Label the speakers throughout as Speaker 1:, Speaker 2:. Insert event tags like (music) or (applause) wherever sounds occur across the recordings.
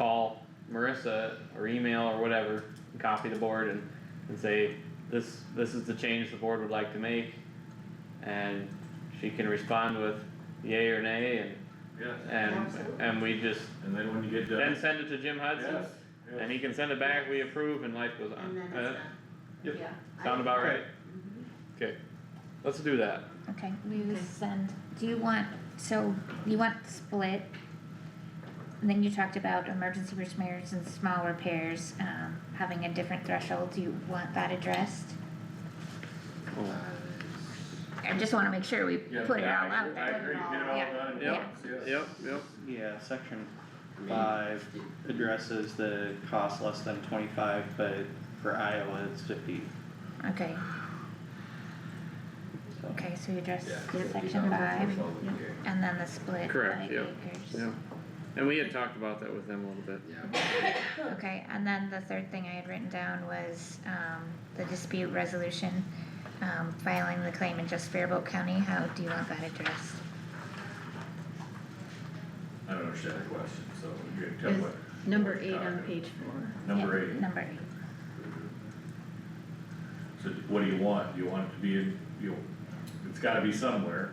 Speaker 1: call Marissa or email or whatever, and copy the board and, and say, this, this is the change the board would like to make. And she can respond with yay or nay and,
Speaker 2: yes,
Speaker 1: and,
Speaker 3: Absolutely.
Speaker 1: and we just,
Speaker 2: and then when you get
Speaker 1: then
Speaker 2: done,
Speaker 1: send it to Jim Hudson.
Speaker 2: yes, yes.
Speaker 1: And he can send it back, we approve, and life goes
Speaker 3: And
Speaker 1: on.
Speaker 3: then it's
Speaker 1: Uh,
Speaker 3: done.
Speaker 2: Yep.
Speaker 3: Yeah. I-
Speaker 1: Sound about right?
Speaker 3: Mhm.
Speaker 1: Okay, let's do that.
Speaker 4: Okay, we will
Speaker 3: Okay.
Speaker 4: send, do you want, so you want split? And then you talked about emergency repairs and small repairs, um, having a different threshold, do you want that addressed? I just wanna make sure we
Speaker 2: Yeah,
Speaker 4: put it
Speaker 1: yeah,
Speaker 4: all out
Speaker 2: I
Speaker 4: there.
Speaker 2: agree, get it all
Speaker 4: Yeah.
Speaker 2: done,
Speaker 1: Yep,
Speaker 2: yes, yes.
Speaker 1: Yep, yep.
Speaker 5: Yeah, section five addresses the cost less than twenty-five, but for Iowa, it's fifty,
Speaker 4: Okay,
Speaker 5: so.
Speaker 4: okay, so you address
Speaker 2: Yeah,
Speaker 4: section five,
Speaker 3: Yeah.
Speaker 4: and then the split
Speaker 1: Correct,
Speaker 4: by
Speaker 1: yep,
Speaker 4: acres.
Speaker 1: yep. And we had talked about that with them a little bit.
Speaker 4: Okay, and then the third thing I had written down was, um, the dispute resolution, um, filing the claim in just Faribault County, how do you want that addressed?
Speaker 2: I don't understand the question, so you can tell
Speaker 3: Is
Speaker 2: what.
Speaker 3: Number
Speaker 2: what
Speaker 3: eight
Speaker 2: you're
Speaker 3: on
Speaker 2: talking
Speaker 3: page four.
Speaker 2: about. Number
Speaker 4: Yeah,
Speaker 2: eight,
Speaker 4: Number eight.
Speaker 2: so what do you want, do you want it to be, in you, it's gotta be somewhere,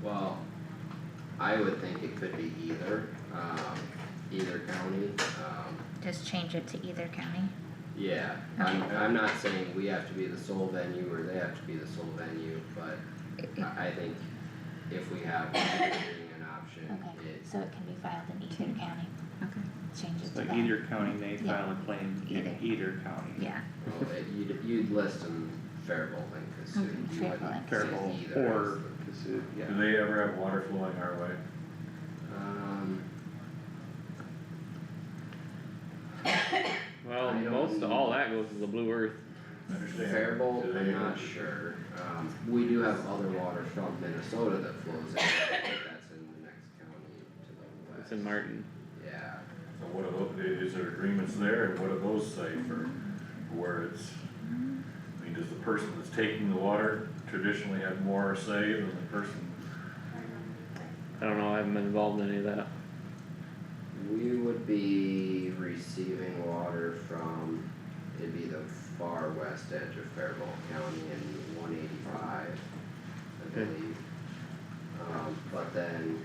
Speaker 6: Well, I would think it could be either, um, either county, um,
Speaker 4: Just change it to either county.
Speaker 6: yeah. I'm, I'm not saying we have to be the sole venue or they have to be the sole venue, but
Speaker 4: It- it-
Speaker 6: I, I think if we have an option,
Speaker 4: Okay,
Speaker 6: it's,
Speaker 4: so it can be filed in either county,
Speaker 3: Okay.
Speaker 4: change it to
Speaker 5: So
Speaker 4: that.
Speaker 5: either county may
Speaker 4: Yeah.
Speaker 5: file a claim in
Speaker 4: Either.
Speaker 5: either county.
Speaker 4: Yeah,
Speaker 6: well, it- you'd, you'd list them Faribault and Cassuth, you
Speaker 4: Faribault
Speaker 6: wouldn't
Speaker 4: and
Speaker 6: say
Speaker 5: Terrible,
Speaker 6: either.
Speaker 5: or, Cassuth, yeah.
Speaker 2: do they ever have water flowing our way?
Speaker 6: Um,
Speaker 1: Well,
Speaker 6: I don't-
Speaker 1: most of all that goes to the Blue Earth.
Speaker 2: I Understand?
Speaker 6: Faribault,
Speaker 2: Do
Speaker 6: I'm
Speaker 2: they-
Speaker 6: not sure, um, we do have other water from Minnesota that flows in, I think that's in the next county to the west.
Speaker 1: It's in Martin.
Speaker 6: Yeah,
Speaker 2: So what are those, is there agreements there, and what do those say for,
Speaker 4: Mm-hmm.
Speaker 2: where it's, I mean, does the person that's taking the water traditionally have more say than the person?
Speaker 1: I don't know, I haven't been involved in any of that.
Speaker 6: we would be receiving water from, it'd be the far west edge of Faribault County in one eighty-five, I
Speaker 1: Okay.
Speaker 6: believe. Um, but then,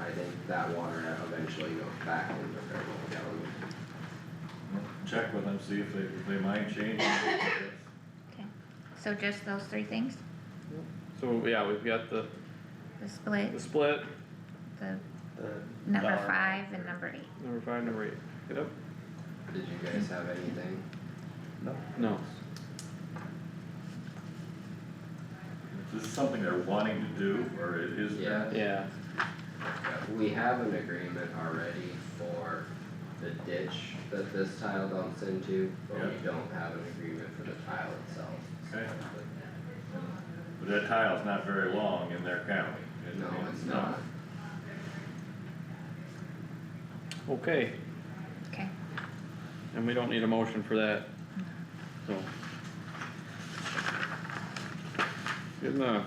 Speaker 6: I think that water eventually goes back into Faribault County.
Speaker 2: Check with them, see if they, if they mind changing. it.
Speaker 4: so just those three things,
Speaker 1: So, yeah, we've got the,
Speaker 4: the
Speaker 1: the
Speaker 4: split,
Speaker 1: split,
Speaker 4: the
Speaker 5: The
Speaker 4: number
Speaker 5: dollar
Speaker 4: five
Speaker 5: amount.
Speaker 4: and number eight.
Speaker 1: number five, number eight. Yep.
Speaker 6: Did you guys have anything?
Speaker 5: No,
Speaker 1: No.
Speaker 2: Is This is something they're wanting to do, or it is.
Speaker 6: Yeah.
Speaker 1: Yeah.
Speaker 6: Yeah, We have an agreement already for the ditch that this tile dumps into, but we
Speaker 2: Yeah.
Speaker 6: don't have an agreement for the tile itself.
Speaker 2: Okay. But that tile's not very long in their county. It-
Speaker 6: No, it's not.
Speaker 1: Okay,
Speaker 4: Okay,
Speaker 1: and we don't need a motion for that, so. Good enough.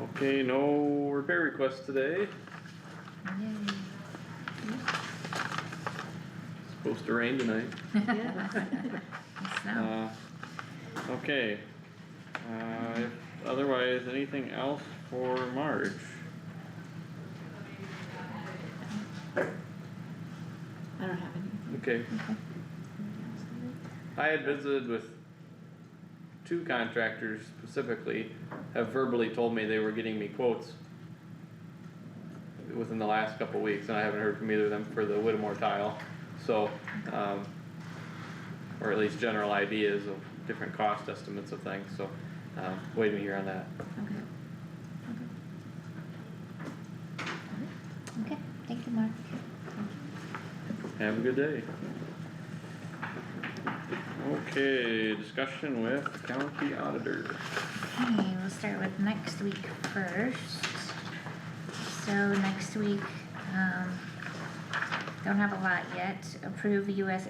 Speaker 1: Okay, no repair requests today.
Speaker 4: (laughs) Yay.
Speaker 1: Supposed to rain tonight.
Speaker 3: Yeah.
Speaker 4: And snow.
Speaker 1: Uh, okay. Uh, if otherwise, anything else for Marge?
Speaker 3: I don't have anything
Speaker 1: Okay,
Speaker 4: Okay.
Speaker 3: else.
Speaker 1: I had visited with two contractors specifically, have verbally told me they were getting me quotes within the last couple weeks, and I haven't heard from either of them for the Whittemore tile, so, um, or at least general ideas of different cost estimates of things, so, um, waiting to hear on that.
Speaker 3: Okay.
Speaker 4: Okay, thank you, Mark.
Speaker 1: Have a good day. Okay, discussion with county auditor.
Speaker 4: Okay, we'll start with next week first. So next week, um, don't have a lot yet, approve US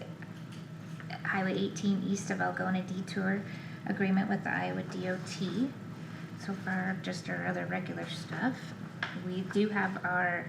Speaker 4: Highway eighteen east of Algona detour agreement with the Iowa DOT. So far, just our other regular stuff. We do have our